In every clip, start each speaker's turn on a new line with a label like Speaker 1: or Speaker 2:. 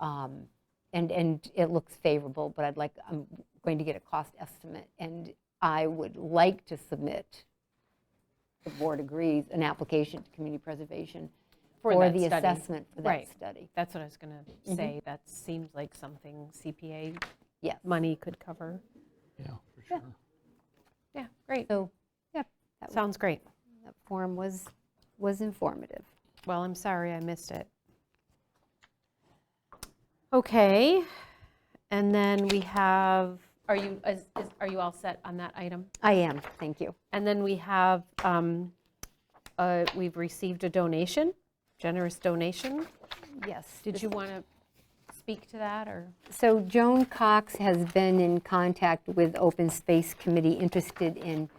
Speaker 1: Um, And, and it looks favorable, but I'd like, I'm going to get a cost estimate. And I would like to submit, the board agrees, an application to community preservation
Speaker 2: For Mm-hmm.
Speaker 1: for
Speaker 2: that
Speaker 1: the
Speaker 2: study.
Speaker 1: assessment for that
Speaker 2: Right.
Speaker 1: study.
Speaker 2: That's what I was going to say. That seems like something CPA
Speaker 1: Yes.
Speaker 2: money could cover.
Speaker 3: Yeah, for sure.
Speaker 2: Yeah, great.
Speaker 1: So, yeah, that
Speaker 2: Sounds great.
Speaker 1: that forum was, was informative.
Speaker 2: Well, I'm sorry I missed it. Okay, and then we have, are you, is- is- are you all set on that item?
Speaker 1: I am, thank you.
Speaker 2: And then we have, um, uh, we've received a donation, generous donation.
Speaker 1: Yes.
Speaker 2: Did you want to speak to that, or?
Speaker 1: So Joan Cox has been in contact with Open Space Committee, interested in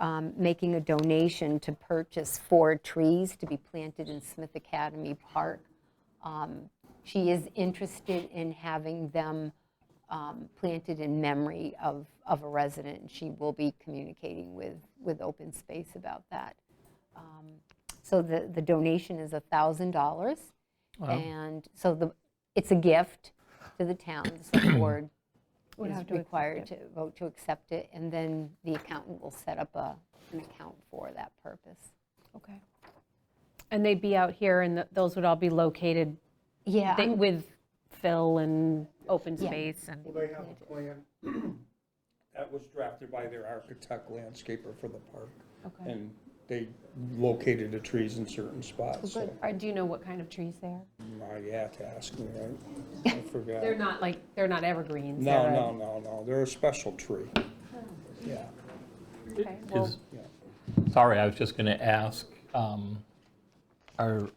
Speaker 1: um, making a donation to purchase four trees to be planted in Smith Academy Park. Um, She is interested in having them um, planted in memory of, of a resident. and She will be communicating with, with Open Space about that. Um, So the, the donation is $1,000. And so the, it's a gift to the town, the select board
Speaker 2: Would have
Speaker 1: is
Speaker 2: to accept
Speaker 1: required to vote to accept it, and then the accountant will set up a, an account for that purpose.
Speaker 2: Okay. And they'd be out here, and th- those would all be located
Speaker 1: Yeah,
Speaker 2: thi-
Speaker 1: I'm-
Speaker 2: with Phil and open space and,
Speaker 4: Well, they have a plan that was drafted by their architect landscaper for the park.
Speaker 2: Okay.
Speaker 4: And they located the trees in certain spots, so
Speaker 2: Or do you know what kind of trees they are?
Speaker 4: now you have to ask me, right? I forgot.
Speaker 2: They're not like, they're not evergreens.
Speaker 4: No,
Speaker 2: they're a-
Speaker 4: no, no, no, they're a special tree. Yeah,
Speaker 2: Okay, well,
Speaker 3: Is-
Speaker 4: yeah.
Speaker 3: Sorry, I was just going to ask, um, are,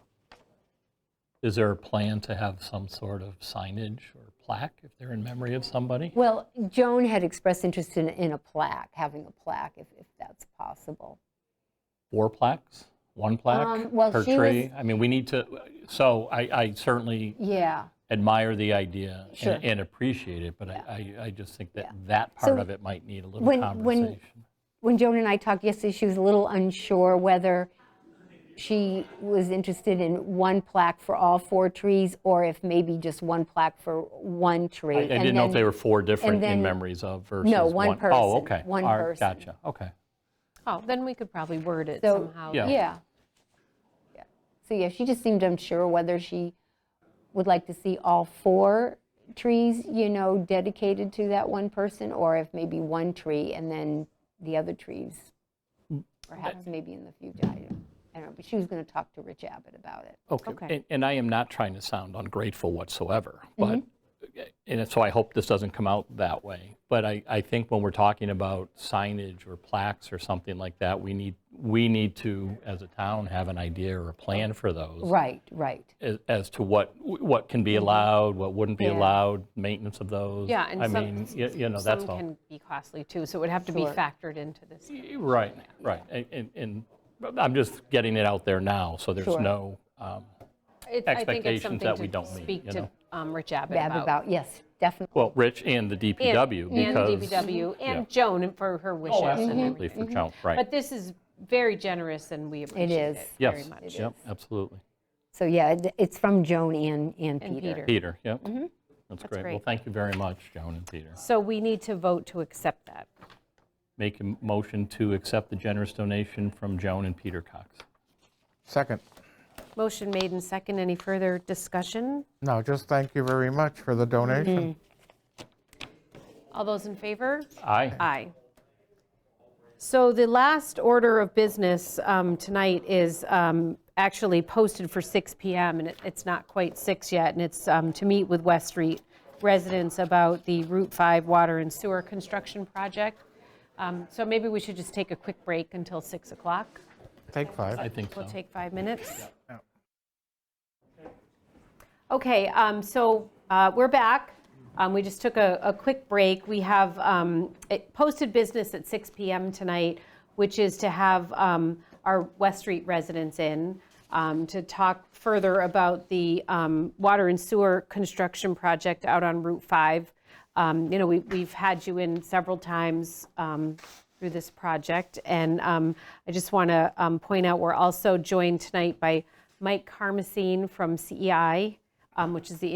Speaker 3: is there a plan to have some sort of signage or plaque if they're in memory of somebody?
Speaker 1: well, Joan had expressed interest in, in a plaque, having a plaque, if, if that's possible.
Speaker 3: Four plaques? One plaque
Speaker 1: Um, well,
Speaker 3: per
Speaker 1: she was-
Speaker 3: tree? I mean, we need to, so I I certainly
Speaker 1: Yeah,
Speaker 3: admire the idea and-
Speaker 1: Sure.
Speaker 3: and appreciate it, but I I I just think that that
Speaker 1: So
Speaker 3: part of it might need a little
Speaker 1: when- when-
Speaker 3: conversation.
Speaker 1: when Joan and I talked yesterday, she was a little unsure whether she was interested in one plaque for all four trees, or if maybe just one plaque for one tree.
Speaker 3: I I didn't know if they were four different
Speaker 1: then-
Speaker 3: in memories of versus one.
Speaker 1: No, one
Speaker 3: Oh,
Speaker 1: person,
Speaker 3: okay.
Speaker 1: one
Speaker 3: All right,
Speaker 1: person.
Speaker 3: Gotcha, okay.
Speaker 2: oh, then we could probably word it
Speaker 1: So-
Speaker 2: somehow.
Speaker 3: Yeah.
Speaker 1: Yeah. Yeah. So, yeah, she just seemed unsure whether she would like to see all four trees, you know, dedicated to that one person, or if maybe one tree and then the other trees, perhaps maybe in the future. I don't- I don't know, but she was going to talk to Rich Abbott about it.
Speaker 3: Okay,
Speaker 2: Okay.
Speaker 3: and- and I am not trying to sound ungrateful whatsoever, but,
Speaker 2: Mm-hmm.
Speaker 3: and so I hope this doesn't come out that way, but I, I think when we're talking about signage or plaques or something like that, we need, we need to, as a town, have an idea or a plan for those
Speaker 1: Right, right.
Speaker 3: as- as to what, what can be allowed, what wouldn't be
Speaker 1: Yeah.
Speaker 3: allowed, maintenance of
Speaker 2: Mm-hmm.
Speaker 3: those.
Speaker 2: Yeah, and some-
Speaker 3: I mean, y- you know, that's
Speaker 2: Some
Speaker 3: all.
Speaker 2: can be costly too, so it would have to be
Speaker 1: Sure.
Speaker 2: factored into this.
Speaker 3: Right, right, and- and, and I'm just getting it out there now, so there's
Speaker 1: Sure.
Speaker 3: no, um,
Speaker 2: It's- I think it's
Speaker 3: Expectations
Speaker 2: something
Speaker 3: that we
Speaker 2: to
Speaker 3: don't meet,
Speaker 2: Speak
Speaker 3: you
Speaker 2: to
Speaker 3: know?
Speaker 2: um, Rich Abbott
Speaker 1: Bab
Speaker 2: about.
Speaker 1: about, yes, definitely.
Speaker 3: well, Rich and the
Speaker 2: And-
Speaker 3: DPW,
Speaker 2: And the
Speaker 3: because.
Speaker 2: DPW,
Speaker 3: yeah.
Speaker 2: and Joan for her wishes.
Speaker 3: Oh,
Speaker 2: and
Speaker 3: absolutely,
Speaker 2: everything.
Speaker 3: for Joan, right.
Speaker 2: Mm-hmm. But this is very generous, and we appreciate
Speaker 1: is.
Speaker 2: it very
Speaker 3: Yes,
Speaker 2: much.
Speaker 3: yep, absolutely.
Speaker 1: So, yeah, it- it's from Joan and, and
Speaker 2: And
Speaker 1: Peter.
Speaker 2: Peter.
Speaker 3: Peter, yep. That's great. Well,
Speaker 2: Mm-hmm. great.
Speaker 3: thank you very much, Joan and Peter.
Speaker 2: So we need to vote to accept that.
Speaker 3: Make a motion to accept the generous donation from Joan and Peter Cox.
Speaker 5: Second.
Speaker 2: Motion made and second. Any further discussion?
Speaker 5: No, just thank you very much for the donation.
Speaker 2: All those in favor?
Speaker 3: Aye.
Speaker 2: Aye. So the last order of business um, tonight is um, actually posted for 6 PM, and it- it's not quite 6 yet, and it's um, to meet with West Street residents about the Route 5 water and sewer construction project. Um, So maybe we should just take a quick break until 6 o'clock.
Speaker 5: Take five.
Speaker 3: I think so.
Speaker 2: We'll take five minutes.
Speaker 5: Yeah.
Speaker 2: Okay, um, so uh, we're back. Um, We just took a a quick break. We have um, it- posted business at 6 PM tonight, which is to have um, our West Street residents in um, to talk further about the um, water and sewer construction project out on Route 5. Um, You know, we- we've had you in several times um, through this project, and um, I just want to point out, E we're also joined tonight by Mike Carmesine from CEI, um, which is the